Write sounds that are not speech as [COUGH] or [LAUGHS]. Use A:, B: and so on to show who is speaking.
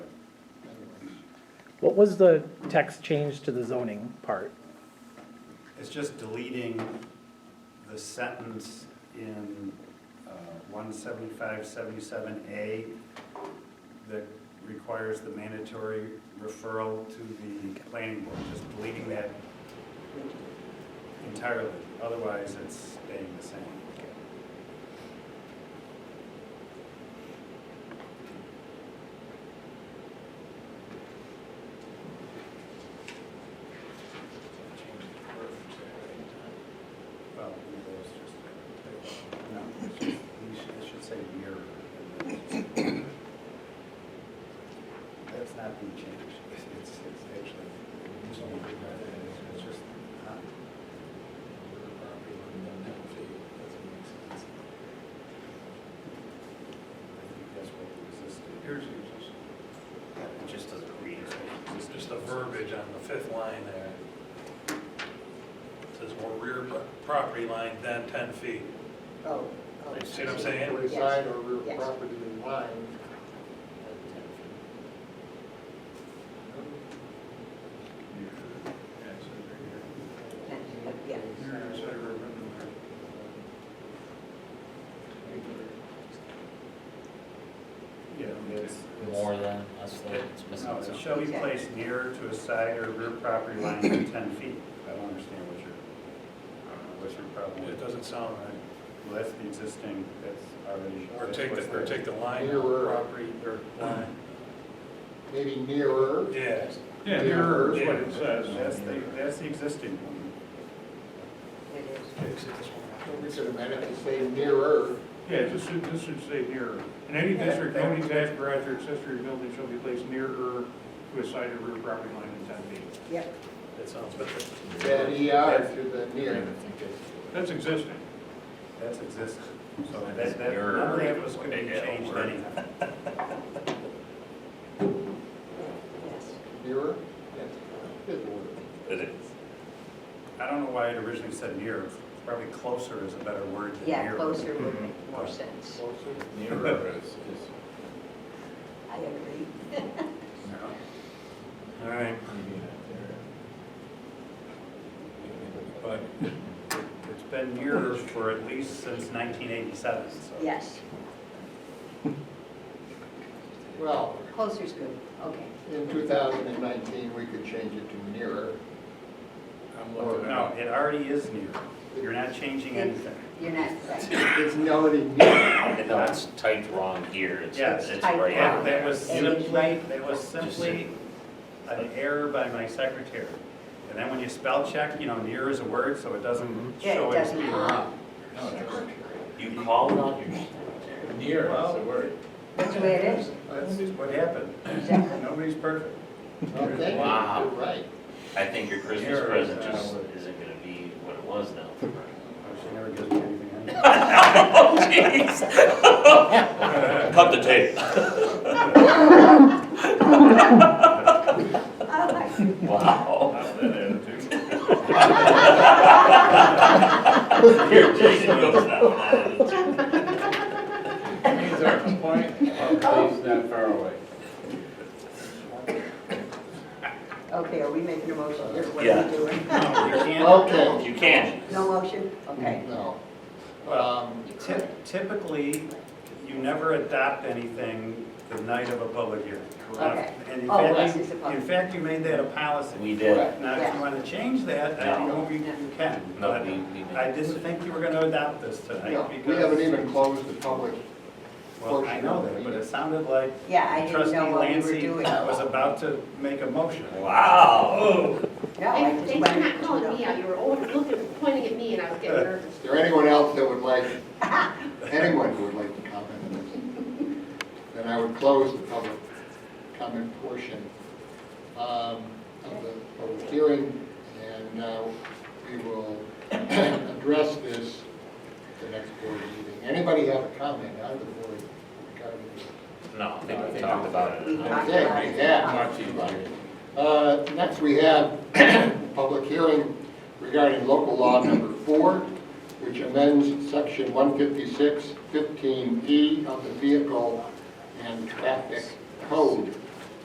A: What was the text change to the zoning part?
B: It's just deleting the sentence in uh, one seventy-five, seventy-seven A that requires the mandatory referral to the planning board, just deleting that entirely. Otherwise, it's staying the same. Well, maybe it's just- no, it's just- you should- It should say year. and then it's just- That's not being changed. It's, it's it's actually, it's only, it's just, huh? I think that's what existed.
C: Here's the existing.
B: It just doesn't read.
C: It's just the verbiage on the fifth line there. It Says more rear pro- property line than 10 feet.
D: Oh. oh.
C: You see what I'm saying?
D: Yes.
E: Reside or real
D: Yes.
E: property in line.
D: Yeah.
B: Yeah, it's. it's-
F: More than, that's the, it's missing
B: No, it
F: something.
B: Uh, shall be placed nearer to a side or rear property line than 10 feet. I don't understand what uh, your, I don't know, what's your problem
C: It
B: with
C: doesn't sound right.
B: Well, that's the existing, that's already.
C: Or
B: that's
C: take
B: what's
C: the, or
B: there.
C: take the line, out,
E: Nearer.
C: property, or line.
E: Maybe nearer.
C: Yeah.
G: Yeah, nearer is what it says.
B: That's the, that's the existing one.
D: It is.
E: We could amend it to say nearer.
G: Yeah, this should, this should say nearer. In any district, no detached garage or accessory building shall be placed nearer to a side or rear property line than ten feet.
D: Yep,
C: That sounds better.
E: That ER to the near.
G: That's existing.
B: That's existing. So that,
F: It's
B: that, none
F: nearer
B: of that
F: is
B: was
F: what
B: going to be
F: they had
B: changed
F: over.
B: anyhow.
D: yes.
E: Nearer? That's Good word.
F: It is.
B: I don't know why it originally said near. Probably closer is a better word than near.
D: Yeah, closer would
B: Mm-hmm.
D: make more sense.
E: Closer.
B: [LAUGHS]
H: Nearer is, is
D: I agree.
B: All right,
H: maybe not there.
B: but it's been nearer for at least since 1987, so.
D: Yes,
E: Well,
D: closer's good, okay.
E: in 2019, we could change it to nearer.
G: I'm
E: looking
B: No, it already is near. You're not changing anything.
D: You're not, right.
E: It's noted near.
F: And no, it's typed wrong here, it's,
B: Yes.
F: it's
D: Typed
F: right
B: That
D: wrong.
F: out
B: that was
F: there.
D: It is
B: simply,
D: right.
B: that was simply an error by my secretary. And then when you spell check, you know, near is a word, so it doesn't
D: Yeah, it
B: show it's
D: doesn't-
B: being wrong.
H: No, it's-
F: You call it, you
H: Near is the word.
D: that's the way it is,
B: That's what happened.
D: exactly. [LAUGHS]
B: Nobody's perfect.
E: Okay,
F: Wow.
E: you're right.
F: I think your Christmas
B: Here,
F: present
B: uh,
F: just isn't gonna be what it was [LAUGHS] now.
B: Oh, She never gives me anything.
F: Oh, [LAUGHS] jeez. Cut the tape.
D: I like it.
F: Wow.
G: that attitude.
F: Here, Jason goes now.
H: Means our complaint, our place not far away.
D: Okay, are we making a motion here? What are
F: Yeah.
D: we doing?
E: Okay,
F: You can.
D: No motion? Okay.
E: no. Um,
B: Typ- Typically, you never adopt anything the night of a public hearing.
D: Okay.
B: And in
D: Oh,
B: fact,
D: this
B: you-
D: is a public-
B: In fact, you made that a policy.
F: We did.
B: Now, if you want to change that, I
F: No.
B: know you you can.
F: No,
B: but
F: we- we didn't.
B: I didn't think you were going to adopt this tonight
E: no,
B: because.
E: We haven't even closed the public.
B: Well, I know that, but it sounded like
D: Yeah, I didn't
B: trustee
D: know what we were
B: Lancy
D: doing.
B: was about to make a motion.
F: Wow.
D: No, I
I: Thanks
D: just
I: thanks
D: wanted
I: for not
D: to know.
I: calling me out, you were always looking, pointing at me, and I was getting nervous.
E: Is there anyone else that would like, anyone who would like to comment on this? Then I would close the public comment portion um, of the public hearing, and uh, we will address this at the next board meeting. Anybody have a comment on the board regarding this?
F: No, I think we talked about
D: We
F: it.
D: talked
E: Okay,
D: about it.
E: yeah.
H: Much easier.
E: Uh, Next, we have public hearing regarding local law number four, which amends section E 156, 15E of the Vehicle and Traffic Code.